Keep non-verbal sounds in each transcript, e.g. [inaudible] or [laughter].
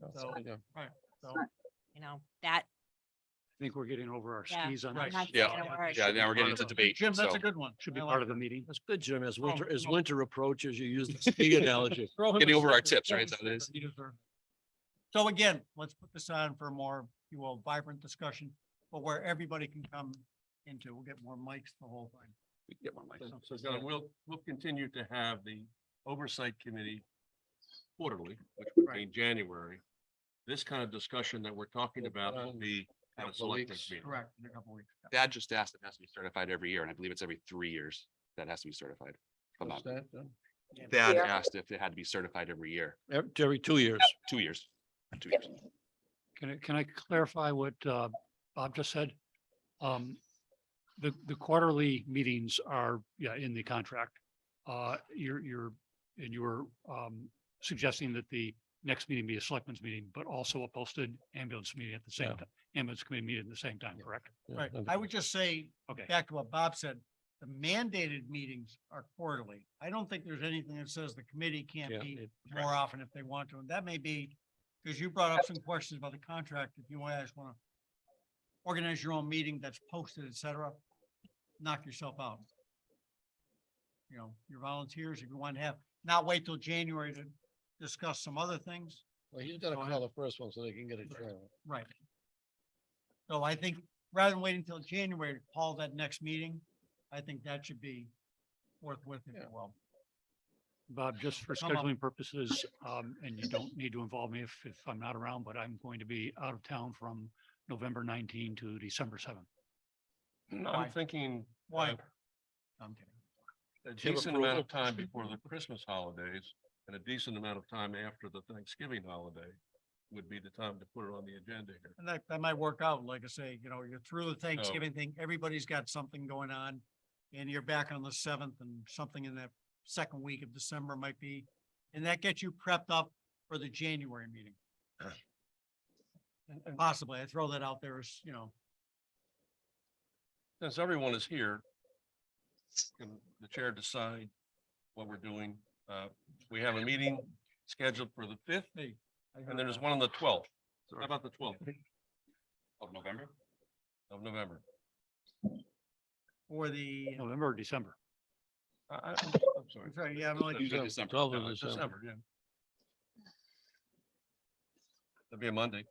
So, Yeah. so, you know, that, I think we're getting over our Yeah. skis on Right. that. Not Yeah, gonna work. Yeah, now we're getting part of into it. debate. Jim, that's so- a good one. Should be I part like of the meeting. That's good, Jim. As winter, as no. winter approaches, you use [laughs] the ski analogy. Throw him a Getting over our slipper. tips, Throw right? him a Is that what it is? slipper. He deserves it. So again, let's put this on for a more, if you will, vibrant discussion, but where everybody can come into, we'll get more mics, the whole thing. Get one mic. So- So John, we'll, we'll continue to have the oversight committee quarterly, which would be in January. This kind of discussion that we're talking about will be at a Couple select weeks. meeting. Correct, in a couple weeks. Yeah. Dad just asked, it has to be certified every year, and I believe it's every three years that has to be certified. if I'm What's not- that, uh, Dad Yeah. asked if it had to be certified every year, ev- Every two years. two years, two years. Can I, can I clarify what uh, Bob just said? Um, The, the quarterly meetings are, yeah, in the contract. Uh, You're, you're, and you were um, suggesting that the next meeting be a selectmen's meeting, but also a posted ambulance meeting at the same Yeah. time, ambulance committee meeting at the same time, correct? Yeah, Right, that'd I be would good. just say, Okay, back to what Bob said, the mandated meetings are quarterly. I don't think there's anything that says the committee can't Yeah, be it- more often if they want to, and that may be, because you brought up some questions about the contract, if you guys want to organize your own meeting that's posted, et cetera, knock yourself out. You know, your volunteers, if you want to have, not wait till January to discuss some other things. Well, he's gotta So I- call the first one so they can get a trial. Right. So I think rather than waiting until January to call that next meeting, I think that should be forthwith, if you Yeah. will. Bob, just for Come up. scheduling purposes, um, and you don't need to involve me if, if I'm not around, but I'm going to be out of town from November 19 to December 7. Why? I'm thinking Why? I'm kidding. a Give decent approval. amount of time before the Christmas holidays and a decent amount of time after the Thanksgiving holiday would be the time to put it on the agenda here. And that, that might work out, like I say, you know, you're through the Thanksgiving thing, everybody's got something going on. And you're back on the seventh and something in that second week of December might be, and that gets you prepped up for the January meeting. And and possibly, I throw that out there as, you know, Since everyone is here, can the chair decide what we're doing? Uh, we have a meeting scheduled for the fifth, hey. I heard and then there's that. one on the twelfth. How about the twelfth Of November? of November? Or the, November or December? I, I, I'm sorry. I'm sorry, yeah, I'm like, You said December, December. 12th of No, it's December. December, yeah. That'd be a Monday.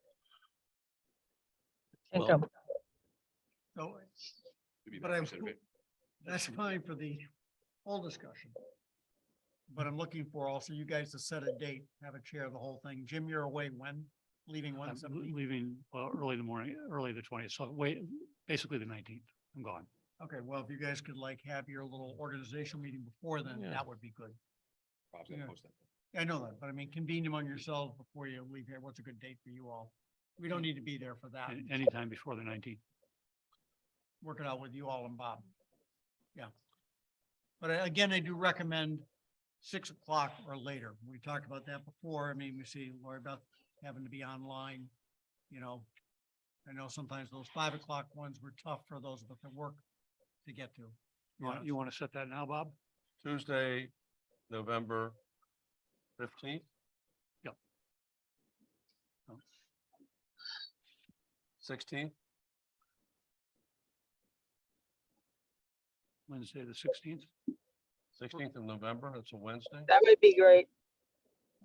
Well, so Maybe But not, I'm- should it That's fine for the whole discussion. But I'm looking for also you guys to set a date, have a chair of the whole thing. Jim, you're away when? Leaving I'm when l- something? leaving, well, early in the morning, early the twentieth, so wait, basically the nineteenth, I'm gone. Okay, well, if you guys could like have your little organizational meeting before then, Yeah. that would be good. be? Bob's gonna Yeah. post that. I know that, but I mean, convene among yourselves before you leave here. What's a good date for you all? We don't need to be there for that. a- Anytime before the nineteenth. work it out with you all and Bob. Yeah. But I- again, I do recommend six o'clock or later. We talked about that before. I mean, we see Lori Beth having to be online, you know. I know sometimes those five o'clock ones were tough for those of us that work to get to. You want, you want to set that now, Bob? Tuesday, November fifteenth? Yep. Sixteenth, Wednesday, the sixteenth? sixteenth of November, that's a Wednesday. That would be great.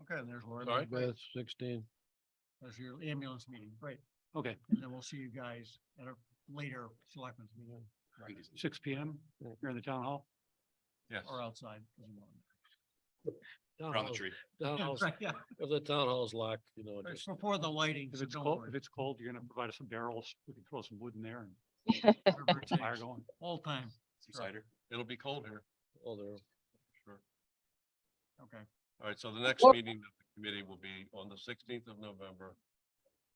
Okay, and there's Lori. Sorry? Beth. Great. That's sixteen. That's your ambulance meeting. Great. Okay, And then we'll see you guys at a later selectmen's meeting six P M here in the town hall. Yes. or outside. Town Around the hall's- tree. Town Yeah, hall's, right, [laughs] yeah. if the town hall's locked, you know, It's just before the lighting. If so it's don't cold, worry. if it's cold, you're going to provide us some barrels. We can throw some wood in there and Whatever it get some [laughs] fire takes. going. All time. Some cider. It'll be cold here, all there. sure. Okay. All right, so the next Well- meeting of the committee will be on the sixteenth of November.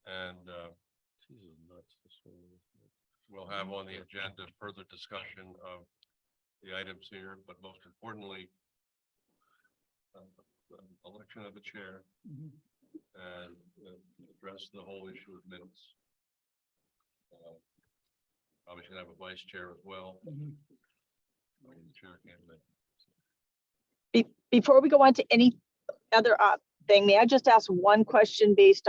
And, uh, we'll have on the agenda further discussion of the items here, but most importantly, um, the election of the chair and uh, address the whole issue of minutes. Uh, Probably should have a vice chair as well. I mean, the chair can't make- uh, Before we go on to any other uh, thing, may I just ask one question based on?